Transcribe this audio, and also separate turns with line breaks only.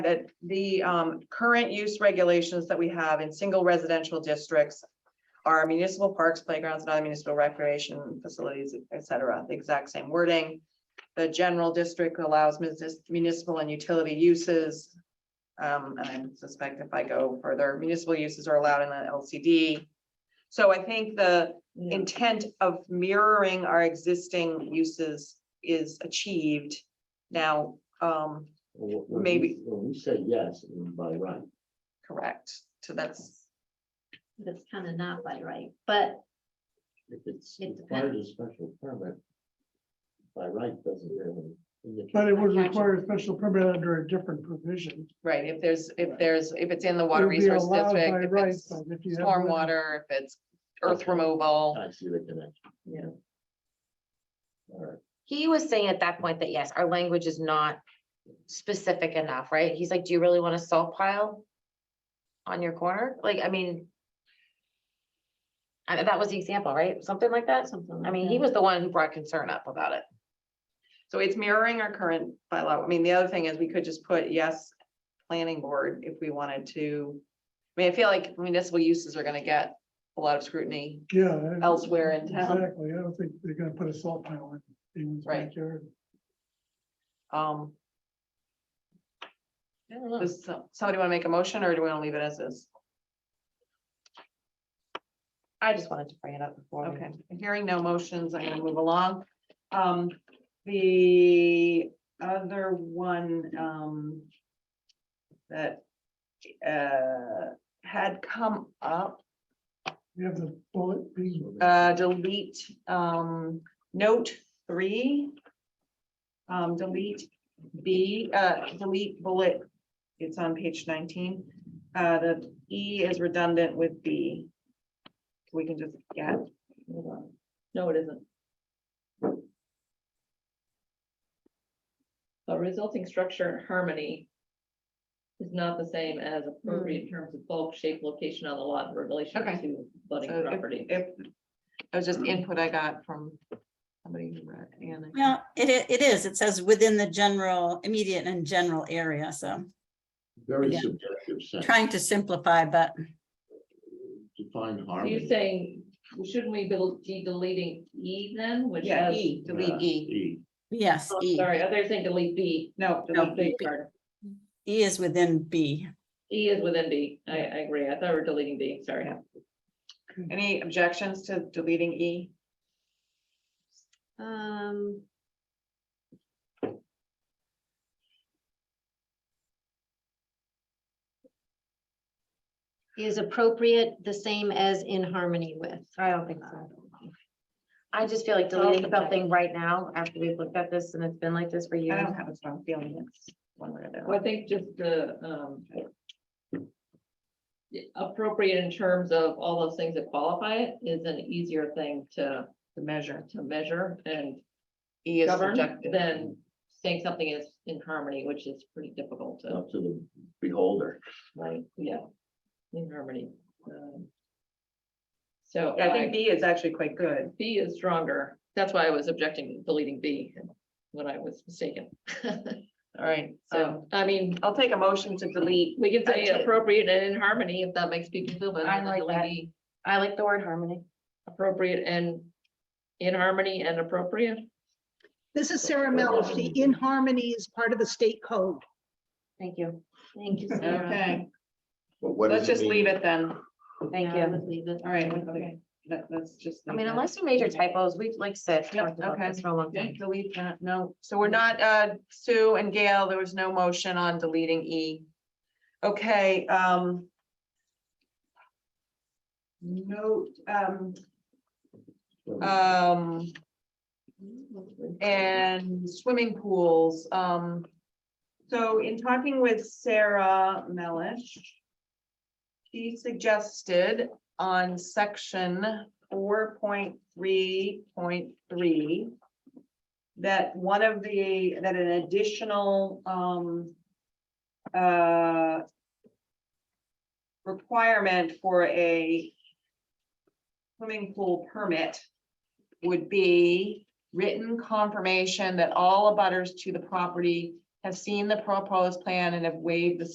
that the um current use regulations that we have in single residential districts. Are municipal parks, playgrounds, and other municipal recreation facilities, et cetera, the exact same wording. The general district allows munis- municipal and utility uses. Um, and I suspect if I go further, municipal uses are allowed in the LCD. So I think the intent of mirroring our existing uses is achieved. Now, um,
Well, when we-
Maybe.
When we say yes, it means by right,
Correct, so that's,
That's kind of not by right, but
if it's
It
required a special permit. By right doesn't really. indicate-
But it would
Gotcha.
require a special permit under a different provision.
right, if there's, if there's, if it's in the
It
water
would be
resource
allowed by
district, if
right,
it's
but if you have one-
stormwater, if it's earth removal.
I see the connection.
Yeah.
All right,
He was saying at that point that yes, our language is not specific enough, right? He's like, do you really want a salt pile? On your corner? Like, I mean. I- that was the example, right? Something like that?
something like
I mean, he
that.
was the one who brought concern up about it.
So it's mirroring our current bylaw. I mean, the other thing is we could just put yes, planning board if we wanted to. I mean, I feel like municipal uses are gonna get a lot of scrutiny
Yeah. I-
elsewhere in town.
Exactly, I don't think they're gonna put a salt pile in anyone's
Right.
backyard.
Um,
I don't know.
does so- somebody wanna make a motion or do we wanna leave it as is?
I just wanted to bring it up before. we-
Okay, hearing no motions, I'm gonna move along. Um, the other one, um. That, uh, had come up,
You have the bullet B,
uh, delete, um, note three. Um, delete B, uh, delete bullet, it's on page nineteen. Uh, the E is redundant with B. We can just get.
No, it isn't. A resulting structure and harmony is not the same as appropriate in terms of bulk, shape, location on the lot in relation
Hmm. Okay.
to budding
So if-
property.
If, that was just input I got from somebody who read Anna.
Yeah, it, i- it is. It says within the general, immediate and general area, so
very
Yeah.
subjective sense,
trying to simplify, but
define
Are
harmony.
you saying, shouldn't we be deleting E then, which
Yeah,
has?
E, delete
Yeah,
E.
yes,
Oh,
E,
Sorry, I thought you were saying delete B.
No,
Delete
delete
B
E.
part.
E is within B.
E is within B. I, I agree. I thought we were deleting B, sorry.
Yeah. Any objections to deleting E?
Um, Is appropriate the same as in harmony with.
I don't think so. I just feel like deleting something right now after we've looked at this and it's been like this for
I
years.
don't have a strong feeling it's one way or the
Well, I
other.
think just the, um. Appropriate in terms of all those things that qualify it is an easier thing to,
The measure.
to measure and
E is
govern
subjective.
than. Saying something is in harmony, which is pretty difficult to,
Up to the beholder.
like, yeah, in harmony. um, So
Yeah, I think B is actually quite good.
B is stronger. That's why I was objecting to deleting B when I was mistaken.
All right, um, so
So, I mean,
I'll take a motion to delete.
we can say
I took-
appropriate and in harmony if that makes people feel better.
I
and then
like
delete
that.
E.
I like the word harmony.
appropriate and in harmony and appropriate.
This is Sarah Melish. The in harmony is part of the state code.
Thank you. Oh,
Thank you. Sarah.
Okay,
But what
Uh, let's
does
just
it
leave
mean?
it then.
Thank
Yeah, I
you.
would leave it.
All right, okay, let, us just.
I
leave
mean,
that.
unless you made your typos, we've like said,
Yep,
talked about
okay.
this for a long
Yeah,
time.
Delete that, no, so we're not, uh, Sue and Gail, there was no motion on deleting E. Okay, um. Note, um, um, and swimming pools, um. So in talking with Sarah Melish. She suggested on section four point three point three that one of the, that an additional, um, uh, requirement for a swimming pool permit would be written confirmation that all abutters to the property have seen the proposed plan and have waived the